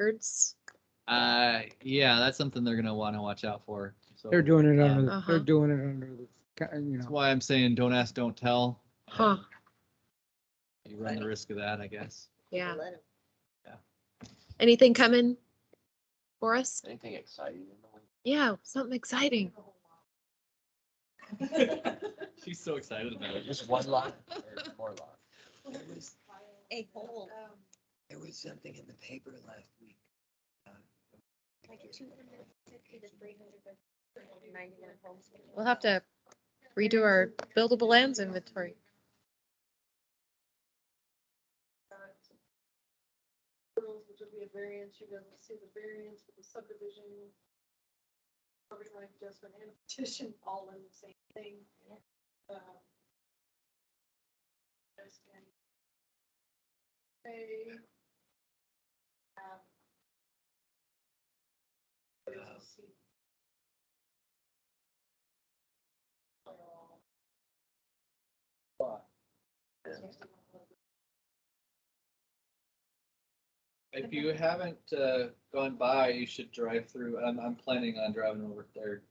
records. Uh, yeah, that's something they're gonna wanna watch out for. So They're doing it under, the- Uh-huh. they're doing it under the, ca- you That's know, why I'm saying, don't ask, don't tell. Huh, You run the risk of that, I guess. yeah. Let 'em- Anything coming for us? Anything exciting? in the week? Yeah, something exciting. She's so excited about it. Just one lot or more lot? There was, A hole, there was something in the paper last week. like two hundred fifty to three hundred. We'll have to redo our buildable lands inventory. approvals, which would be a variance, you guys will see the variance for the subdivision. property line adjustment and petition, all in the same thing. Um, just can say, um, you guys will see. If you haven't, uh, gone by, you should drive through. I'm, I'm planning on driving over there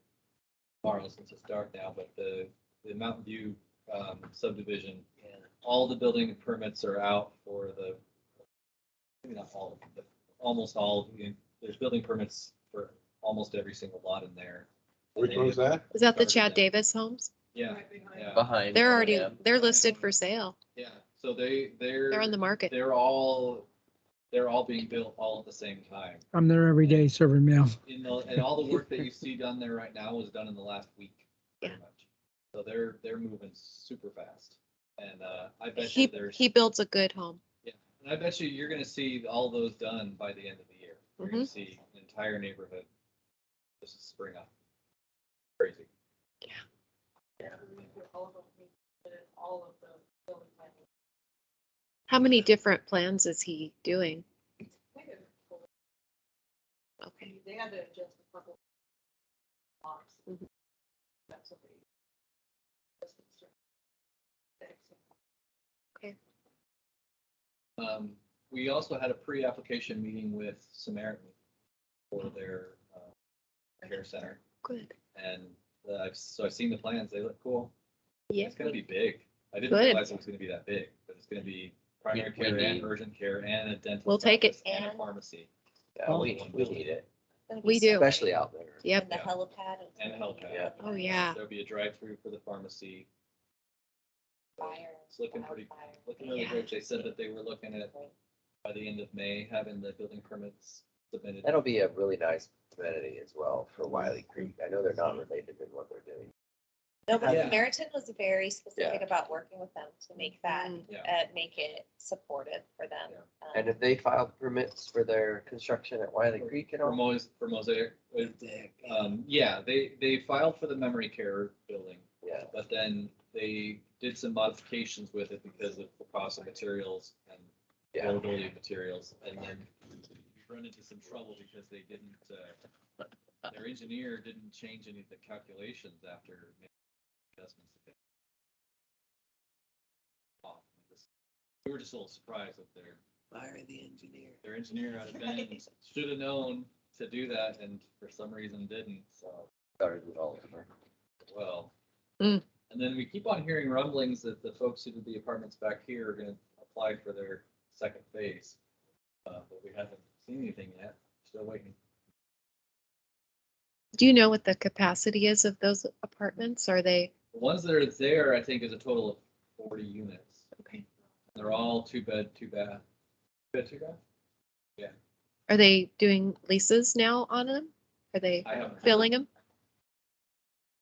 tomorrow since it's dark now, but the, the Mountain View, um, subdivision, Yeah. all the building permits are out for the, maybe not all, of them, but almost all, of them. there's building permits for almost every single lot in there. Which one's that? Is that the Chad Davis homes? Yeah, Right behind. yeah, Behind. They're already, O&M. they're listed for sale. yeah. So they, they're. They're on the market. They're all, they're all being built all at the same time. I'm there every day serving mail. In the, and all the work that you see done there right now was done in the last week. pretty much. So they're, they're moving super fast. And, uh, I bet you He, there's, he builds a good home. and I bet you you're gonna see all those done by the end of the year. You're gonna see an entire neighborhood just spring up. Crazy. We put all of them, we put it, all of the building plans. How many different plans is he doing? They had to- Okay, They had to adjust a couple. Blocks. Mhm. That's what they. that's what's there. Thanks. Um, we also had a pre-application meeting with Samaritan for their, uh, care center. good. And, uh, I've- so I've seen the plans. They look cool. Yeah. It's gonna be big. I didn't Good. realize it was gonna be that big, but it's gonna be primary We- we care and need- urgent care and a dental. We'll take it. practice And a And- pharmacy Yeah, Oh. we, we need it, We do. especially out there. Yep. The helipad. and a health Yeah. pad. Oh, yeah. There'll be a drive-through for the pharmacy. Fire. It's looking pretty, wildfire. looking really Yeah. great. They said that they were looking at by the end of May, having the building permits submitted. That'll be a really nice amenity as well for Wiley Creek. I know they're not related in what they're doing. No, but Yeah. Samaritan was very specific Yeah. about working with them to make that, Mm. Yeah. uh, make it supportive for them. Um, And if they filed permits for their construction at Wiley Creek and For all? Mos, for Mosaic, uh, um, yeah, they, they filed for the memory care building, Yeah, but then they did some modifications with it because of the cost of materials and yeah. availability of materials, and then we run into some trouble because they didn't, uh, their engineer didn't change any of the calculations after making adjustments. that they- Oh, this- We were just a little surprised that their, Fire the engineer. their engineer out of Bend should have known to do that, and for some reason didn't, so Started it all over. well. Mm. And then we keep on hearing rumblings that the folks who did the apartments back here are gonna apply for their second phase. Uh, but we haven't seen anything yet, still waiting. Do you know what the capacity is of those apartments? Are they, The ones that are there, I think, is a total of forty units. okay, They're all two bed, two bath. Two bed, two bath? are they doing leases now on them? Are they I haven't. filling them?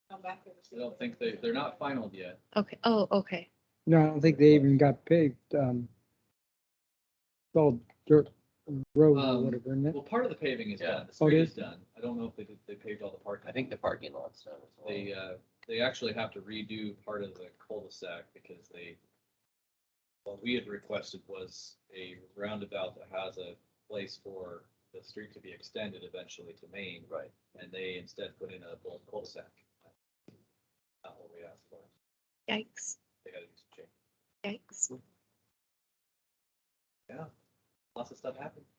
Come back with us. I don't think they, they're not final yet. Okay, oh, okay. No, I don't think they even got paid, um, it's all dirt road or Um, whatever, isn't it? Well, part of the paving is Yeah. done, the Oh, it street is? is done. I don't know if they did, they paved all the parking. I think the parking lot's done as well. They, uh, they actually have to redo part of the cul-de-sac because they, what we had requested was a roundabout that has a place for the street to be extended eventually to Maine, Right. and they instead put in a little cul-de-sac. Not what we asked for. Yikes, They gotta do some change. yikes. Lots of stuff happened.